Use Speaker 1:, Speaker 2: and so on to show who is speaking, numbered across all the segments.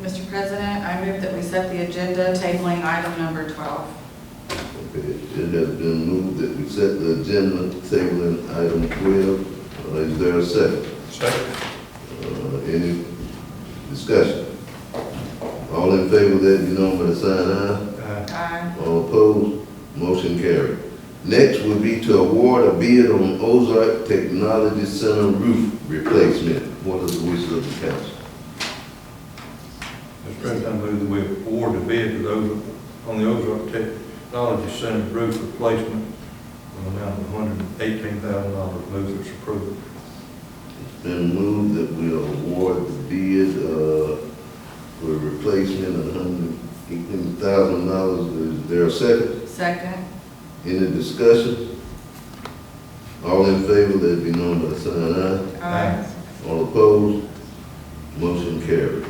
Speaker 1: Mr. President, I move that we set the agenda tabling item number 12.
Speaker 2: Okay, It has been moved that we set the agenda tabling item twelve. Uh, Is there a second?
Speaker 3: Second.
Speaker 2: Uh, Any discussion? All in favor of that, you know, by the sign aye.
Speaker 3: Aye.
Speaker 1: Aye.
Speaker 2: All opposed, motion carried. Next would be to award a bid on Ozark Technology Center roof replacement. What is the wishes of the council?
Speaker 3: Mr. President, I move that we award the bid to those on the Ozark Technology Center roof replacement in the amount of hundred and eighteen thousand dollars. Move its approval.
Speaker 2: It's been moved that we award the bid, uh, for replacement of hundred eighteen thousand dollars. Is there a second?
Speaker 1: Second.
Speaker 2: Any discussion? All in favor, let it be known by the sign of aye.
Speaker 3: Aye.
Speaker 2: All opposed? Motion carried.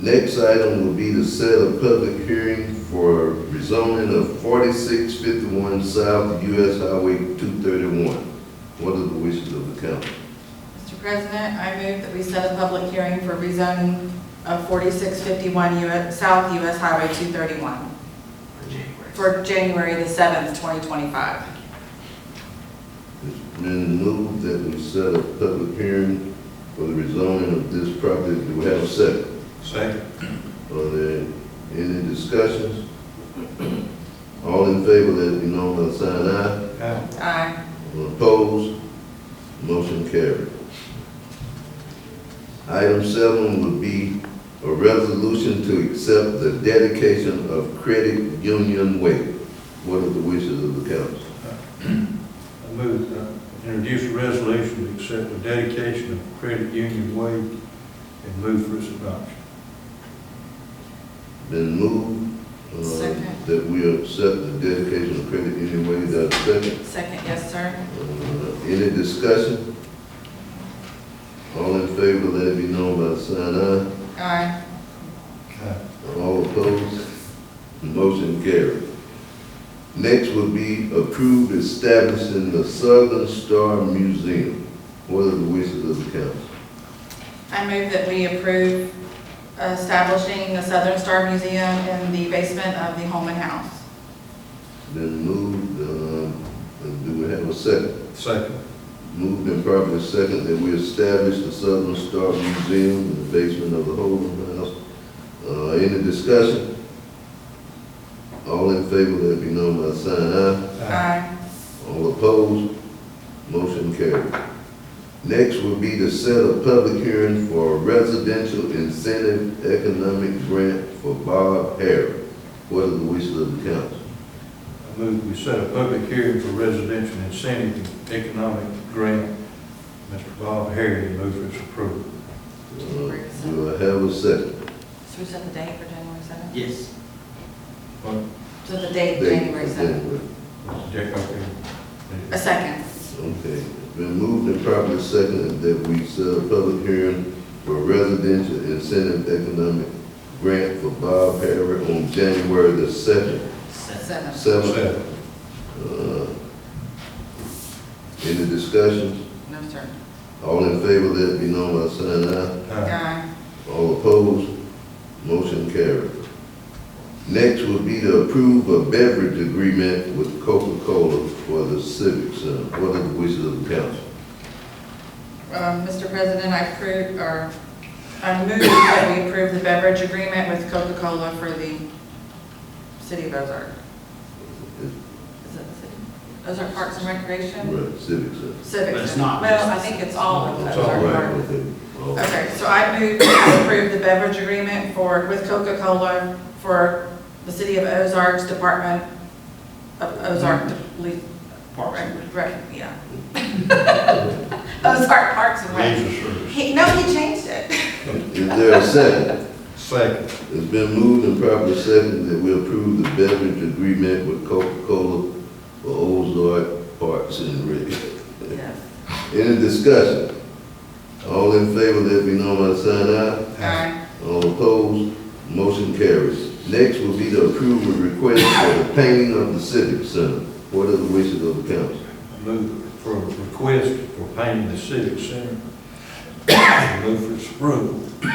Speaker 2: Next item will be to set a public hearing for rezoning of forty-six fifty-one South US Highway two thirty-one. What are the wishes of the council?
Speaker 1: Mr. President, I move that we set a public hearing for rezoning of 4651 US South US Highway 231 for January the 7th, 2025.
Speaker 2: It's been moved that we set a public hearing for the rezoning of this property. Do we have a second?
Speaker 3: Second.
Speaker 2: Are there any discussions? All in favor, let it be known by the sign of aye.
Speaker 3: Aye.
Speaker 1: Aye.
Speaker 2: All Opposed? Motion carried. Item seven would be a resolution to accept the dedication of Credit Union Way. What are the wishes of the council?
Speaker 3: I move to introduce a resolution to accept the dedication of Credit Union Way and move for its adoption.
Speaker 2: Been moved,
Speaker 1: Second.
Speaker 2: uh, that we accept the dedication of Credit Union Way. Is there a second?
Speaker 1: Second, yes, sir.
Speaker 2: Uh, Any discussion? All in favor, let it be known by the sign of aye.
Speaker 1: Aye.
Speaker 3: Aye.
Speaker 2: All opposed? Motion carried. Next would be approved establishing the Southern Star Museum. What are the wishes of the council?
Speaker 1: I move that we approve establishing the Southern Star Museum in the basement of the Holman House.
Speaker 2: Then moved, um, uh, do we have a second?
Speaker 3: Second.
Speaker 2: Moved and properly second that we establish the Southern Star Museum in the basement of the Holden House. Uh, Any discussion? All in favor, let it be known by the sign aye.
Speaker 1: Aye.
Speaker 2: All opposed? Motion carried. Next would be to set a public hearing for a residential incentive economic grant for Bob Harris. What are the wishes of the council?
Speaker 3: I move we set a public hearing for residential incentive and economic grant. Mr. Bob Harry, move for its approval.
Speaker 2: Uh, Do I have a second?
Speaker 1: Should we set the date for January 7th?
Speaker 4: Yes.
Speaker 1: So the date, January 7th.
Speaker 3: Dick, okay.
Speaker 1: A second.
Speaker 2: Okay, It's been moved and properly seconded that we set a public hearing for residential incentive economic grant for Bob Harris on January the second,
Speaker 4: Second.
Speaker 1: Seven.
Speaker 2: seventh.
Speaker 3: Second.
Speaker 2: Uh, Any discussion?
Speaker 1: No, sir.
Speaker 2: All in favor, let it be known by saying aye.
Speaker 3: Aye.
Speaker 1: Aye.
Speaker 2: All opposed, motion carried. Next would be to approve a beverage agreement with Coca-Cola for the civic center. What are the wishes of the council?
Speaker 1: Um, Mr. President, I approve, or I move that we approve the beverage agreement with Coca-Cola for the city of Ozark. Is that the city? Ozark Parks and Recreation?
Speaker 2: Right, civic center.
Speaker 1: Civic.
Speaker 4: But it's
Speaker 1: Center.
Speaker 4: not
Speaker 1: Well,
Speaker 4: just-
Speaker 1: I think it's all of
Speaker 2: It's
Speaker 1: Ozark
Speaker 2: all right,
Speaker 1: Park.
Speaker 2: okay. All right.
Speaker 1: Okay, so I move to approve the beverage agreement for, with Coca-Cola for the city of Ozark's Department of Ozark, De-
Speaker 4: Parks and
Speaker 1: Rec- Rec- yeah. Ozark Parks and Rec.
Speaker 3: Leisure service.
Speaker 1: He, no, he changed it.
Speaker 2: Is there a second?
Speaker 3: Second.
Speaker 2: It's been moved and properly seconded that we approve the beverage agreement with Coca-Cola for Ozark Parks and Rec.
Speaker 1: Yes.
Speaker 2: Any discussion? All in favor, let it be known by the sign aye.
Speaker 1: Aye.
Speaker 2: All opposed, motion carries. Next will be to approve a request for the painting of the civic center. What are the wishes of the council?
Speaker 3: I Move for a request for painting the civic center. Move for its approval.